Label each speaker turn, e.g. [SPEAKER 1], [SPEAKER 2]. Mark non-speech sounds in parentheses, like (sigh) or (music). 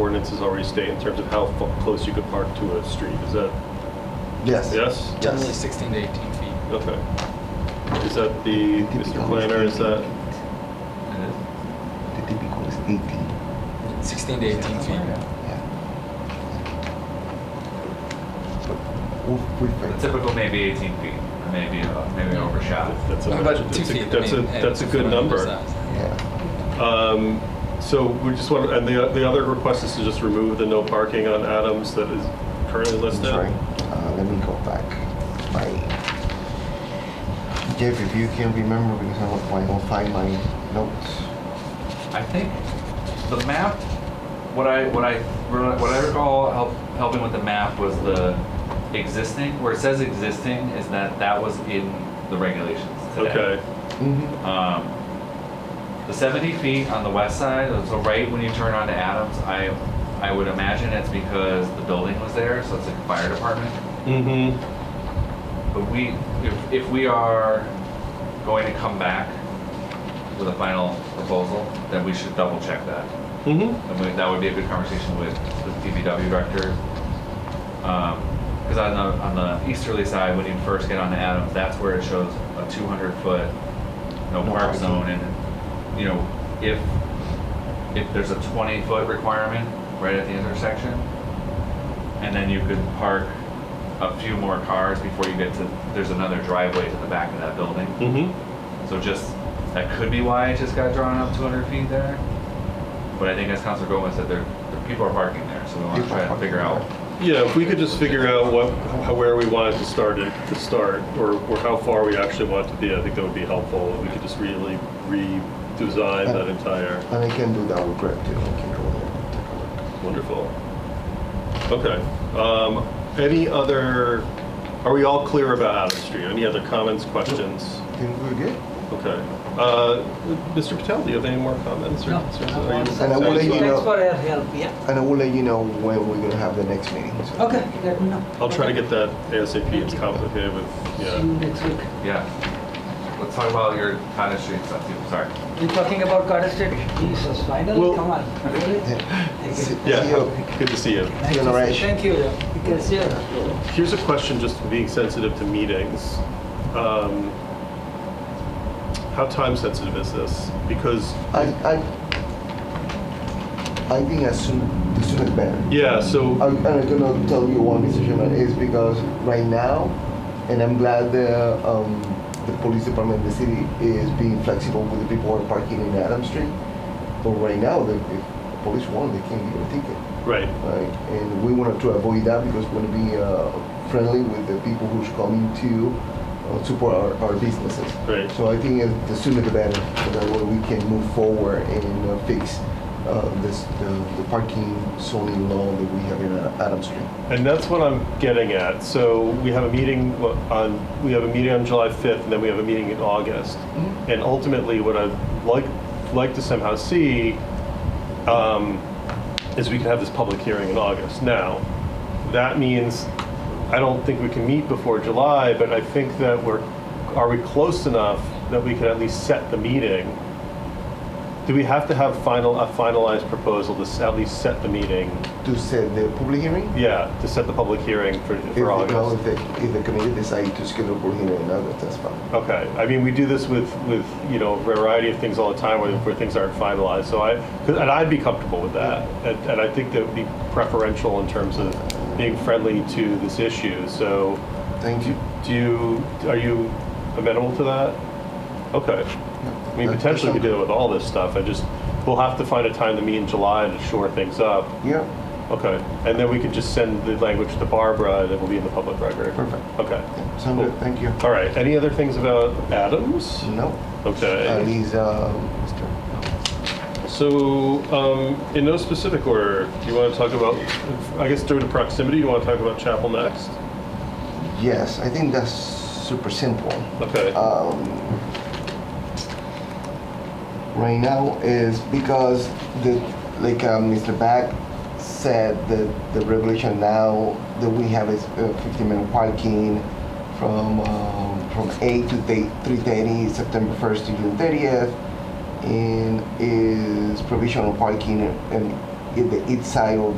[SPEAKER 1] ordinances already state in terms of how fu- close you could park to a street? Is that,
[SPEAKER 2] Yes.
[SPEAKER 1] yes?
[SPEAKER 3] Generally 16 to 18 feet.
[SPEAKER 1] Okay. Is that the,
[SPEAKER 2] I think it's
[SPEAKER 1] Mr.
[SPEAKER 2] always
[SPEAKER 1] Planner, is that,
[SPEAKER 2] The typical is 18.
[SPEAKER 3] 16 to 18 feet.
[SPEAKER 2] Yeah. But we, we
[SPEAKER 4] The
[SPEAKER 2] think.
[SPEAKER 4] typical maybe 18 feet, or maybe uh, maybe overshot.
[SPEAKER 1] that's a,
[SPEAKER 3] About two
[SPEAKER 1] that's a,
[SPEAKER 3] feet. I
[SPEAKER 1] that's a,
[SPEAKER 3] mean, and
[SPEAKER 1] that's a
[SPEAKER 3] it's
[SPEAKER 1] good
[SPEAKER 3] on the
[SPEAKER 1] number.
[SPEAKER 3] size.
[SPEAKER 2] Yeah.
[SPEAKER 1] Um, So we just want, and the, the other request is to just remove the no parking on Adams that is currently
[SPEAKER 2] I'm
[SPEAKER 1] listed?
[SPEAKER 2] sorry. Uh, let me go back. My Jeff, if you can remember, because I don't, I don't find my notes.
[SPEAKER 4] I think the map. What I what I what I recall help, helping with the map was the existing. Where it says existing is that that was in the regulations today.
[SPEAKER 1] Okay,
[SPEAKER 2] Mm-hmm.
[SPEAKER 4] Um, the 70 feet on the west side, so right when you turn onto Adams, I I would imagine it's because the building was there, so it's like a fire department.
[SPEAKER 1] mm-hmm,
[SPEAKER 4] But we, if, if we are going to come back with a final proposal, then we should double check that.
[SPEAKER 1] mm-hmm,
[SPEAKER 4] And we, that would be a good conversation with the DPW director. Um, cause on the, on the easterly side, when you first get onto Adams, that's where it shows a two hundred foot no
[SPEAKER 2] No
[SPEAKER 4] park
[SPEAKER 2] parking.
[SPEAKER 4] zone and, you know, if, if there's a twenty foot requirement right at the intersection, and then you could park a few more cars before you get to, there's another driveway to the back of that building.
[SPEAKER 1] mm-hmm.
[SPEAKER 4] So just, that could be why it just got drawn up two hundred feet there. But I think as Councilor Gomez said, there, there- people are parking there, so we want to
[SPEAKER 2] People are
[SPEAKER 4] try and
[SPEAKER 2] parking
[SPEAKER 4] figure out.
[SPEAKER 1] Yeah, if we could just figure out what, how- where we wanted to start it, to start, or, or how far we actually want it to be, I think that would be helpful. We could just really redesign that entire,
[SPEAKER 2] And I can do that with Greg too. I can go over and take a look.
[SPEAKER 1] wonderful. Okay, um, any other, are we all clear about Adams Street? Any other comments, questions?
[SPEAKER 2] Think we're good?
[SPEAKER 1] Okay. Uh, Mr. Patel, do you have any more comments? or
[SPEAKER 5] No.
[SPEAKER 1] concerns? Are you-
[SPEAKER 2] And I will let you
[SPEAKER 5] Thanks
[SPEAKER 2] know,
[SPEAKER 5] for your help, yeah.
[SPEAKER 2] and I will let you know when we're gonna have the next meeting. so-
[SPEAKER 5] Okay, let me know.
[SPEAKER 1] I'll try to get that ASAP. It's complicated with,
[SPEAKER 5] See you
[SPEAKER 1] yeah.
[SPEAKER 5] next week.
[SPEAKER 4] Yeah. Let's talk about your cottage street stuff too, sorry.
[SPEAKER 5] You're talking about Carter State? Jesus,
[SPEAKER 1] Well-
[SPEAKER 5] finally,
[SPEAKER 1] (laughs)
[SPEAKER 5] come on, really?
[SPEAKER 2] Yeah.
[SPEAKER 5] Thank you.
[SPEAKER 1] Yeah, (laughs) good to see you.
[SPEAKER 5] Nice to see-
[SPEAKER 2] Alright.
[SPEAKER 5] Thank you, yeah. Because, yeah.
[SPEAKER 1] Here's a question, just being sensitive to meetings. Um, How time sensitive is this? Because,
[SPEAKER 2] I, I, I think as soon, the sooner the better.
[SPEAKER 1] yeah, so,
[SPEAKER 2] I'm, I'm gonna tell you one decision that is because right now, and I'm glad the um, the police department, the city is being flexible with the people who are parking in Adams Street. But right now, the, if the police want, they can give a ticket,
[SPEAKER 1] right,
[SPEAKER 2] right? And we want to avoid that because we want to be uh, friendly with the people who's coming to uh, support our, our businesses.
[SPEAKER 1] Right.
[SPEAKER 2] So I think uh, the sooner the better, so that way we can move forward and uh, fix uh, this, the, the parking zoning law that we have in uh, Adams Street.
[SPEAKER 1] and that's what I'm getting at. So we have a meeting wha- on, we have a meeting on July 5th, and then we have a meeting in August. And ultimately, what I'd like, like to somehow see um, is we can have this public hearing in August. Now, that means, I don't think we can meet before July, but I think that we're, are we close enough that we can at least set the meeting? Do we have to have final, a finalized proposal to s- at least set the meeting?
[SPEAKER 2] To set the public hearing?
[SPEAKER 1] Yeah, to set the public hearing for,
[SPEAKER 2] If,
[SPEAKER 1] for
[SPEAKER 2] the-
[SPEAKER 1] August?
[SPEAKER 2] if, the, if the committee decide to schedule a public hearing in August, that's fine.
[SPEAKER 1] Okay, I mean, we do this with, with, you know, a variety of things all the time where, where things aren't finalized, so I, 'cause- and I'd be comfortable with that. And, and I think that would be preferential in terms of being friendly to this issue, so
[SPEAKER 2] Thank you.
[SPEAKER 1] do you, are you amenable to that? Okay. I mean,
[SPEAKER 2] That-
[SPEAKER 1] potentially we
[SPEAKER 2] that's
[SPEAKER 1] deal with all this stuff, I just, we'll have to find a time to meet in July to shore things up.
[SPEAKER 2] Yeah,
[SPEAKER 1] Okay, and then we could just send the language to Barbara and it will be in the public record.
[SPEAKER 2] Perfect.
[SPEAKER 1] Okay.
[SPEAKER 2] sound good, thank you.
[SPEAKER 1] All right, any other things about Adams?
[SPEAKER 2] No, at
[SPEAKER 1] Okay.
[SPEAKER 2] least, uh, Mr.
[SPEAKER 1] So, um, in no specific order, do you want to talk about, I guess due to proximity, you want to talk about Chapel next?
[SPEAKER 2] Yes, I think that's super simple.
[SPEAKER 1] Okay.
[SPEAKER 2] um, right now is because the like uh, Mr. Back said that the regulation now that we have is uh, 15 minute parking from um, from 8 to 3:30 September 1st to June 30th and is provisional parking and in the east side of